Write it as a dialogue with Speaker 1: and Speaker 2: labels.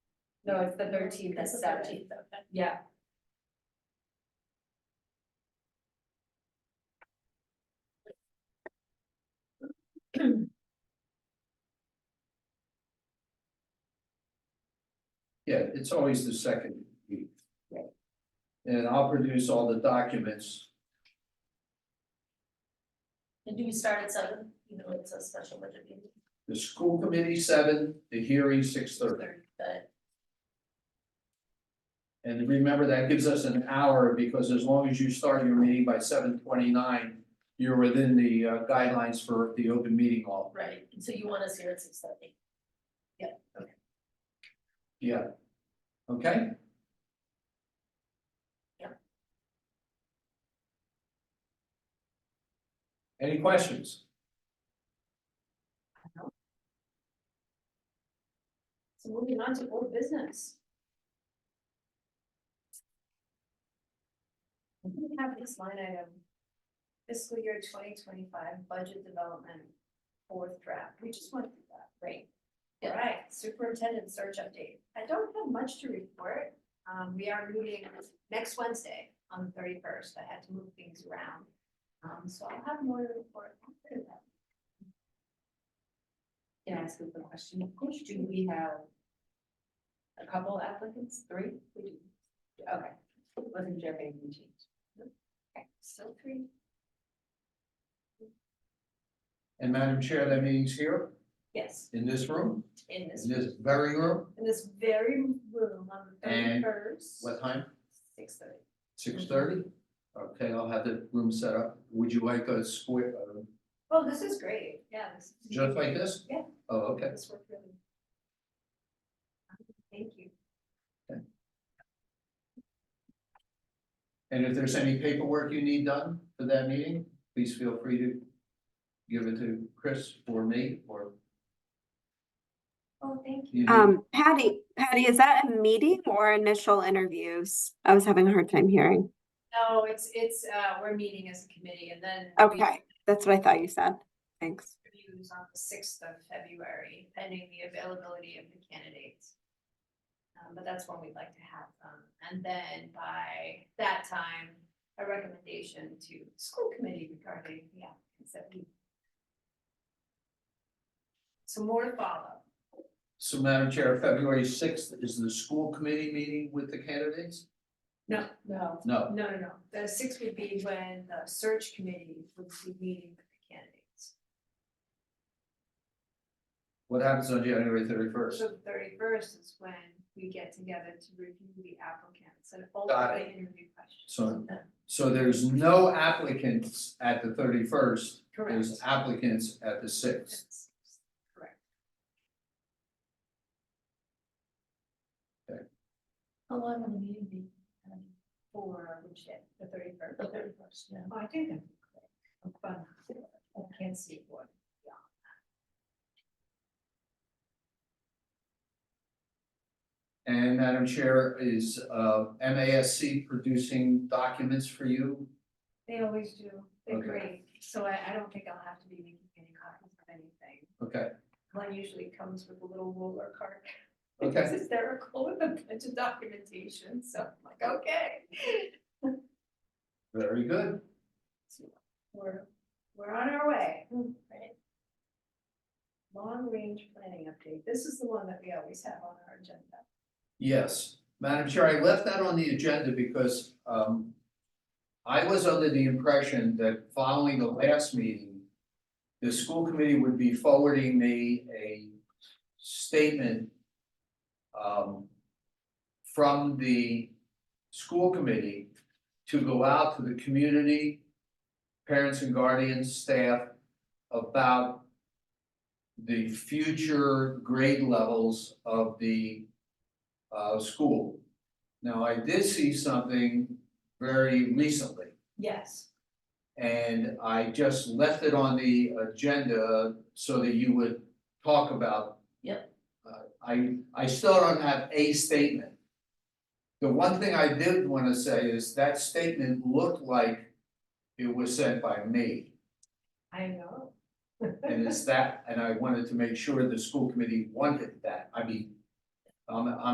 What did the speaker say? Speaker 1: No, it's the thirteenth at
Speaker 2: It's the
Speaker 1: seven,
Speaker 2: 13th, okay.
Speaker 1: yeah.
Speaker 3: Yeah, it's always the second week.
Speaker 1: Right.
Speaker 3: And I'll produce all the documents,
Speaker 2: And do we start at seven, you know, it's a special budget meeting,
Speaker 3: the school committee seven, the hearing six thirty.
Speaker 2: but
Speaker 3: And remember, that gives us an hour, because as long as you start your meeting by seven twenty-nine, you're within the uh, guidelines for the open meeting law.
Speaker 2: right, and so you want us here at six thirty.
Speaker 3: Yeah. Okay?
Speaker 2: Yeah.
Speaker 3: Any questions?
Speaker 2: So moving on to old business.
Speaker 4: We have this line item, fiscal year twenty twenty-five budget development, fourth draft, we just went through that, right?
Speaker 2: Yeah.
Speaker 4: Right, superintendent search update, I don't have much to report, um, we are meeting next Wednesday on the thirty-first, I had to move things around. Um, so I'll have more to report. after that.
Speaker 1: Can I ask a quick question? Of course, do we have a couple applicants, three? We do. Okay, wasn't sure if anything changed.
Speaker 4: Okay, so three,
Speaker 3: And Madam Chair, that meeting's here,
Speaker 4: yes,
Speaker 3: in this room,
Speaker 4: in this,
Speaker 3: in this very room,
Speaker 4: in this very room on the
Speaker 3: And
Speaker 4: thirty-first,
Speaker 3: what time?
Speaker 4: six thirty.
Speaker 3: Six thirty? Okay, I'll have the room set up. Would you like a square, uh,
Speaker 4: Oh, this is great, yeah, this is.
Speaker 3: just like this?
Speaker 4: Yeah.
Speaker 3: Oh, okay.
Speaker 4: This worked really. Thank you.
Speaker 3: And if there's any paperwork you need done for that meeting, please feel free to give it to Chris or me or
Speaker 4: Oh, thank you.
Speaker 3: you.
Speaker 5: Um, Patty, Patty, is that a meeting or initial interviews? I was having a hard time hearing.
Speaker 4: No, it's, it's, uh, we're meeting as a committee and then. we
Speaker 5: Okay, that's what I thought you said. Thanks.
Speaker 4: Reviews on the sixth of February, pending the availability of the candidates. Um, but that's when we'd like to have them. And then by that time, a recommendation to school committee regarding the applicants that we. So more to follow.
Speaker 3: So Madam Chair, February sixth is the school committee meeting with the candidates?
Speaker 4: No, no,
Speaker 3: No,
Speaker 4: No, no, no, the six would be when the search committee would be meeting with the candidates.
Speaker 3: what happens on January thirty first?
Speaker 4: So the thirty-first is when we get together to review the applicants and
Speaker 3: Got
Speaker 4: ultimately interview questions.
Speaker 3: So, so there's no applicants at the thirty first,
Speaker 4: Correct.
Speaker 3: there's applicants at the sixth.
Speaker 4: That's Correct.
Speaker 3: Okay.
Speaker 4: How long will the meeting be? um, For which day, the thirty-first? Oh,
Speaker 2: The 31st, yeah.
Speaker 4: I think that'd be quick. I'm fun. I can't see what.
Speaker 3: And Madam Chair, is uh MASC producing documents for you?
Speaker 4: They always do, they're
Speaker 3: Okay.
Speaker 4: great, so I, I don't think I'll have to be making any copies of anything.
Speaker 3: Okay,
Speaker 4: Mine usually comes with a little roller cart. It's
Speaker 3: okay,
Speaker 4: hysterical with a bunch of documentation, so I'm like, okay.
Speaker 3: very good.
Speaker 4: We're, we're on our way. Hmm, Right. Long range planning update, this is the one that we always have on our agenda.
Speaker 3: Yes, Madam Chair, I left that on the agenda because um. I was under the impression that following the last meeting. The school committee would be forwarding me a statement. um, From the school committee to go out to the community. Parents and guardians, staff about. The future grade levels of the uh, school. Now, I did see something very recently,
Speaker 4: Yes.
Speaker 3: and I just left it on the agenda so that you would talk about.
Speaker 2: Yep.
Speaker 3: Uh, I, I still don't have a statement. The one thing I did wanna say is that statement looked like it was sent by me,
Speaker 4: I know.
Speaker 3: and it's that, and I wanted to make sure the school committee wanted that, I mean. I'm, I'm